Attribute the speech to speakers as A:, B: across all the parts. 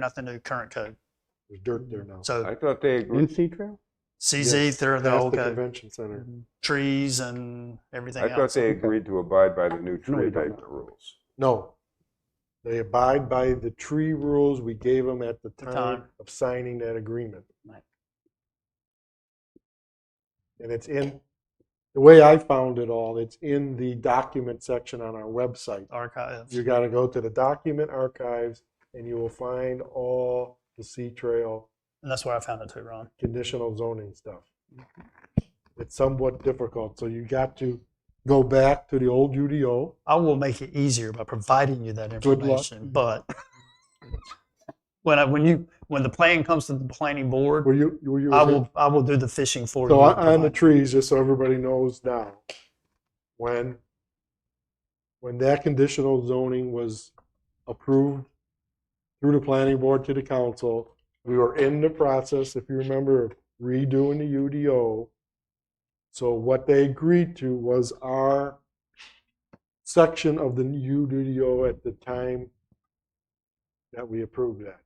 A: nothing to current code.
B: There's dirt there now.
A: So
C: I thought they agreed.
D: NC Trail?
A: CZ, they're the
B: Past
A: old
B: the
A: code,
B: convention center.
A: Mm-hmm. trees and everything
C: I thought
A: else.
C: they agreed to abide by the new
D: No, we
C: tree
D: don't.
C: abatement rules.
B: No. They abide by the tree rules we gave them at the
A: The
B: time
A: time.
B: of signing that agreement.
D: Right.
B: And it's in, the way I found it all, it's in the document section on our website.
A: Archives.
B: You gotta go to the document archives and you will find all the Sea Trail
A: And that's where I found it too, Ron.
B: conditional zoning stuff. It's somewhat difficult, so you got to go back to the old UDO.
A: I will make it easier by providing you that
B: Good luck.
A: information, but when I, when you, when the plan comes to the planning
B: Were
A: board,
B: you, were you?
A: I will, I will do the fishing for you.
B: So
A: and
B: on on the
A: provide-
B: trees, just so everybody knows now, when, when that conditional zoning was approved through the planning board to the council, we were in the process, if you remember, of redoing the UDO. So what they agreed to was our section of the UDO at the time that we approved that.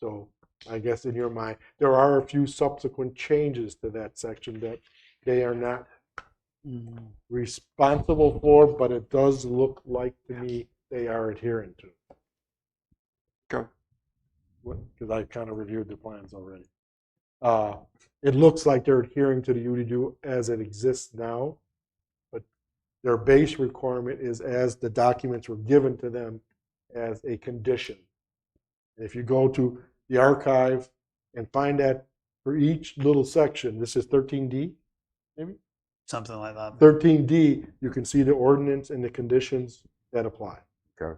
B: So I guess in your mind, there are a few subsequent changes to that section that they are not responsible for, but it does look like to me they are adhering to.
C: Okay.
B: Because I kind of reviewed the plans already. Uh, It looks like they're adhering to the UDO as it exists now, but their base requirement is as the documents were given to them as a condition. If you go to the archive and find that for each little section, this is 13D.
A: Something like that.
B: 13D, you can see the ordinance and the conditions that apply.
C: Okay.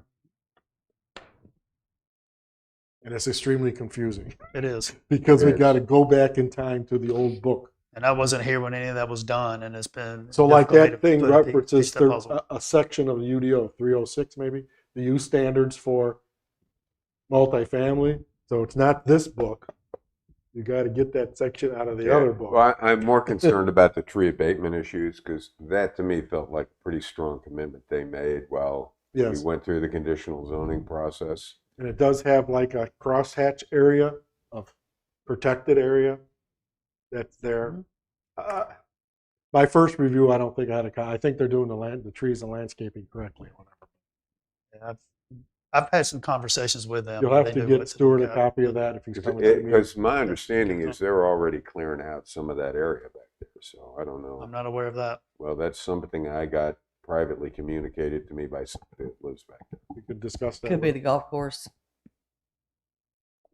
B: And it's extremely confusing
A: It is.
B: because we
C: Yes.
B: got to go back in time to the old book.
A: And I wasn't here when any of that was done and it's been.
B: So like
A: difficult
B: that
A: for me
B: thing
A: to put a pie- piece
B: references
A: to
B: thir-
A: the puzzle.
B: a, a section of the UDO, 306 maybe, the use standards for multifamily. So it's not this book. You got to get that section out of the other book.
C: Well, I, I'm more concerned about the tree abatement issues because that to me felt like a pretty strong commitment they made while we
B: Yes.
C: went through the conditional zoning process.
B: And it does have like a crosshatch area of protected area that's
E: Mm-hmm.
B: there. Uh, My first review, I don't think I had a, co- I think they're doing the land, the trees and landscaping correctly.
A: And I've, I've had some conversations with them.
B: You'll
A: and
B: have
A: they
B: to
A: knew
B: get
A: what
B: Stuart a
A: look at.
B: copy of that if he's coming to the meeting.
C: Because my understanding is they're already clearing out some of that area back there, so I don't know.
A: I'm not aware of that.
C: Well, that's something I got privately communicated to me by somebody that lives back there.
B: We could discuss that.
E: Could be
B: with-
E: the golf course.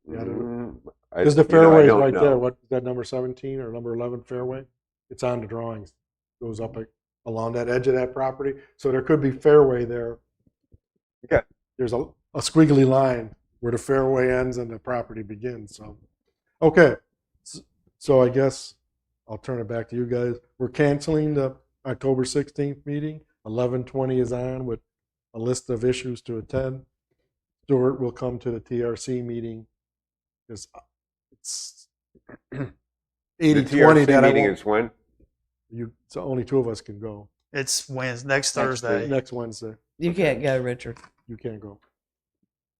B: Yeah, I don't
C: Mm, I-
B: Is the
C: you know, I
B: fairway
C: don't
B: right there,
C: know.
B: what, is that number seventeen or number eleven fairway? It's on the drawings, goes up a- along that edge of that property, so there could be fairway there.
C: Okay.
B: There's a, a squiggly line where the fairway ends and the property begins, so. Okay, s- so I guess I'll turn it back to you guys. We're canceling the October sixteenth meeting. Eleven twenty is on with a list of issues to attend. Stuart will come to the TRC meeting. 'cause It's
C: The
B: eighty twenty
C: TRC
B: that I
C: meeting
B: won't-
C: is when?
B: you, so only two of us can go.
A: It's Wednesday, next
E: Next
A: Thursday.
B: Next Wednesday,
E: You can't go, Richard.
B: you can't go.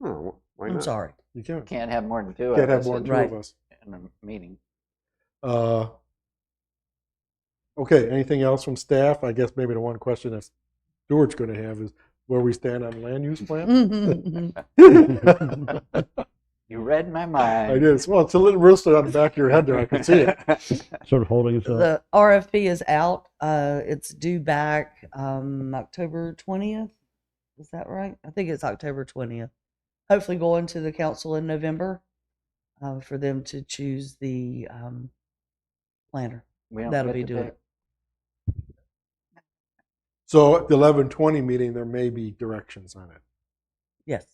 C: Oh, why
E: I'm
C: not?
E: sorry.
B: You can't.
F: Can't have more than two of
B: Can't have
F: us
B: more
F: in-
B: than two of us.
F: in a meeting.
B: Uh, Okay, anything else from staff? I guess maybe the one question that Stuart's going to have is where we stand on land use plan?
F: You read my mind.
B: I did. Well, it's a little roasted on the back of your head there. I can see it.
D: Sort of holding us up.
E: The RFP is out. Uh, it's due back um, October 20th. Is that right? I think it's October 20th. Hopefully going to the council in November uh, for them to choose the um, planner.
F: We don't
E: That'll
F: get
E: be
F: to
E: doing
F: pick.
E: it.
B: So at the eleven twenty meeting, there may be directions on it.
E: Yes.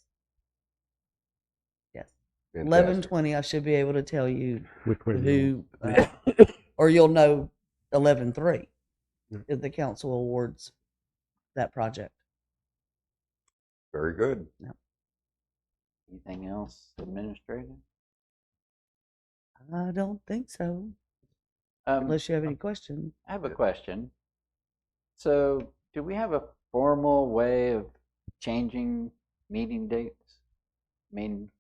E: Yes. Eleven
C: Fantastic.
E: twenty. I should be able to tell you
D: Which way? do
E: who, uh, or you'll know eleven three
B: Yeah.
E: if the council awards that project.
C: Very good.
F: Anything else administrative?
E: I don't think so,
F: Um,
E: unless you have any questions.
F: I have a question. So, do we have a formal way of changing meeting dates? I mean,